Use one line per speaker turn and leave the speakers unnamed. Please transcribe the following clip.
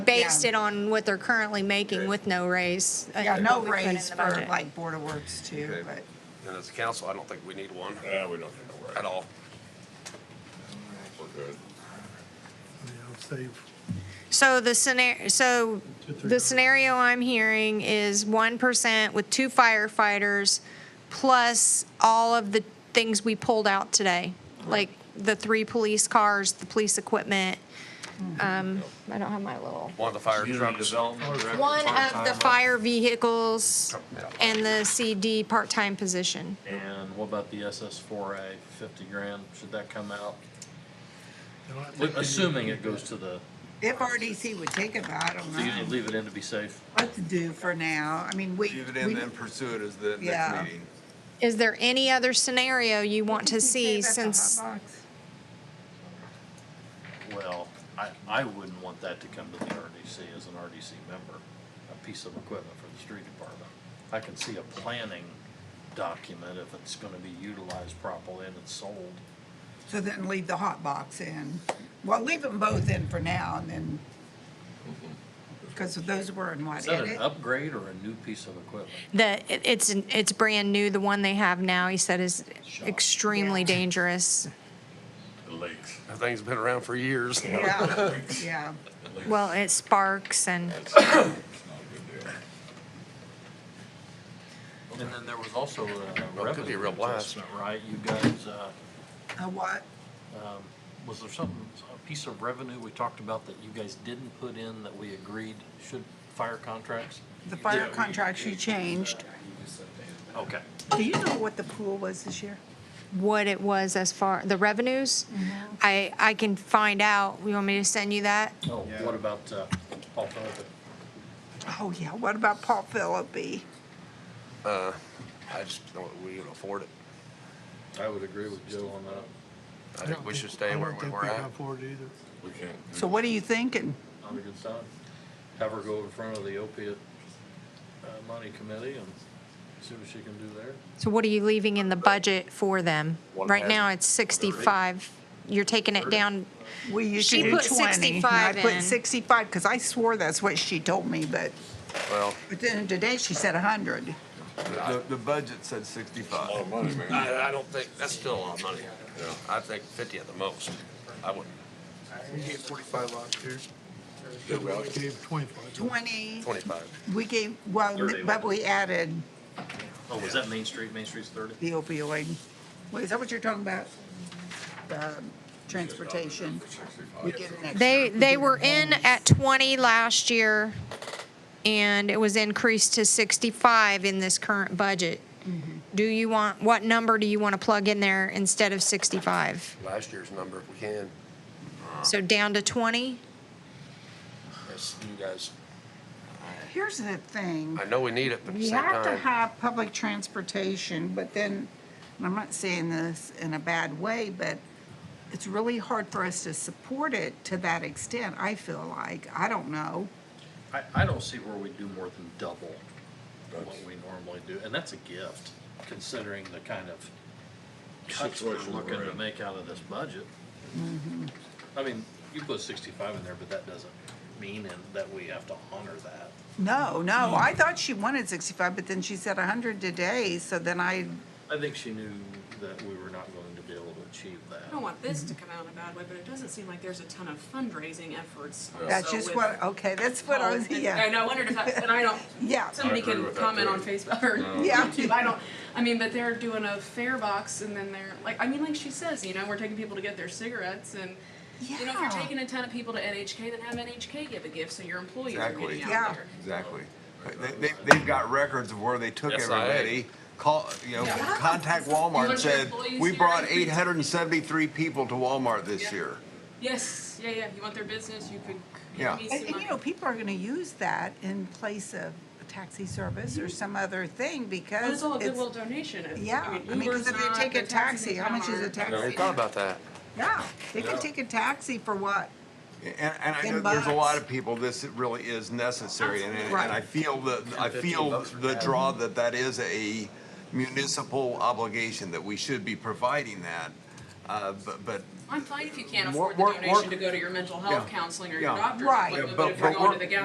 based
Yeah.
it on what they're currently making with no raise. uh,
Yeah, no
we put in
raise
the
for
budget.
like Board of Works too,
Okay.
but
And as a council, I don't think we need one
Yeah, we don't have to worry.
at all.
We're good.
I'll save.
So the scenario, so
Two, three
the
hundred.
scenario I'm hearing is one percent with two firefighters, plus all of the things we pulled out today, like the three police cars, the police equipment. Um, I don't have my little.
One of the fire
Community
trucks.
development director,
One of the
part-time,
fire vehicles
Yeah.
and the CD part-time position.
And what about the SS four A, fifty grand, should that come out?
No, I think we need-
Assuming it goes to the,
if RDC would take it, but I don't
so you
know
leave it in to be safe?
what to do for now. I mean, we.
Leave it
we-
in, then pursue it as the
Yeah.
next meeting.
Is there any other scenario you want to
Did you
see
say about the
since,
hot box?
Well, I, I wouldn't want that to come to the RDC as an RDC member, a piece of equipment for the street department. I can see a planning document if it's gonna be utilized properly and it's sold.
So then leave the hot box in. Well, leave them both in for now and then.
Mm-hmm.
Because those were in what
Is that an
edit?
upgrade or a new piece of equipment?
the, it- it's, it's brand new, the one they have now, he said is
Shot.
extremely
Yeah.
dangerous.
The lakes.
That thing's been around for years.
Yeah, yeah.
Well, it sparks and,
It's not a good deal.
And then there was also a
Well, it could be a
revenue
real blast.
adjustment, right? You guys, uh,
A what?
was there something, a piece of revenue we talked about that you guys didn't put in that we agreed should fire contracts?
The fire contracts you changed.
Okay.
Do you know what the pool was this year?
what it was as far, the revenues. I, I can find out. You want me to send you that?
Oh, what about, uh, Paul Phillips?
Oh, yeah. What about Paul Philippi?
I just don't, we can afford it.
I would agree with Joe on that.
I
I
think
don't
we should
think-
stay where we were
I
at.
don't think we can afford it either.
We can't.
So what are you thinking?
Not a good sign. Have her go in front of the opiate, uh, money committee and see what she can do there.
So what are you leaving in the budget for them?
One
Right
has-
now, it's 65. You're taking it down,
We used
She
to do
put
20. and
65
I put
in.
65 because I swore that's what she told me, but,
Well,
but then today she said 100.
The, the budget said sixty-five. A lot of money, man.
I, I don't think, that's still a lot of money. I think fifty at the most. I wouldn't,
We gave forty-five last year. We gave twenty-five.
20,
twenty-five.
we gave, well,
Thirty.
but we added
Oh, was that Main Street? Main Street's thirty?
the opioid. Wait, is that what you're talking about?
"Oh,
The transportation? We get an extra-
they, they were in at 20 last year and it was increased to 65 in this current budget. Do you want, what number do you want to plug in there instead of 65?
Last year's number, if we can,
So down to 20?
as you guys,
Here's the thing.
I know we need it, but at the
We
same
have to
time.
have public transportation, but then, and I'm not saying this in a bad way, but it's really hard for us to support it to that extent, I feel like. I don't know.
I, I don't see where we do more than double what we normally do, and that's a gift, considering the kind of cuts we're
Situation we're
looking to
in.
make out of this budget. I mean, you put sixty-five in there, but that doesn't mean in- that we have to honor that.
No, no, I thought she wanted 65, but then she said 100 today, so then I,
I think she knew that we were not going to be able to achieve
I don't
that.
want this to come out in a bad way, but it doesn't seem like there's a ton of fundraising efforts.
that's
also
just
with
what, okay, that's what I was,
Paul's-
yeah,
And I wondered if that, and I don't,
yeah.
somebody
agree
can
with that
comment
too.
on Facebook or
Yeah.
YouTube, I don't, I mean, but they're doing a fare box and then they're, like, I mean, like she says, you know, we're taking people to get their cigarettes and, you know, if
Yeah.
you're taking a ton of people to NHK, then have NHK give a gift so your employees are
Exactly.
getting
Yeah.
out there.
Exactly. They, they, they've got records of where they took
Yes, I-
everybody. Call, you know,
Yeah.
contact Walmart and
Bunch of
said,
employees
we
here."
brought eight hundred and seventy-three people to Walmart this
Yeah.
year.
Yes, yeah, yeah, you want their business, you could.
Yeah.
give me
And,
some
and, you know,
money.
people are gonna use that in place of a taxi service or some other thing because
Mm-hmm. But it's all a
it's-
goodwill donation. It's-
Yeah, I mean,
Uber's
because if they
not,
take a
the taxis
taxi,
in
how much
town
is a
aren't.
taxi?
I never thought about that.
Yeah, they can
Yeah.
take a taxi for what?
And, and I
Ten
know there's a lot
bucks.
of people, this really is necessary, and, and
Right.
I feel the, I
fifteen
feel
bucks
the draw that that is a municipal obligation, that we should be providing that. Uh, but, but
I'm fine if you can't
Work-
afford the
work-
donation
work-
to go to your mental health
Yeah.
counseling or
Yeah.
your doctor's
Right.
appointment,
Yeah,
but
but-
if you're
but
going to
work-
the gas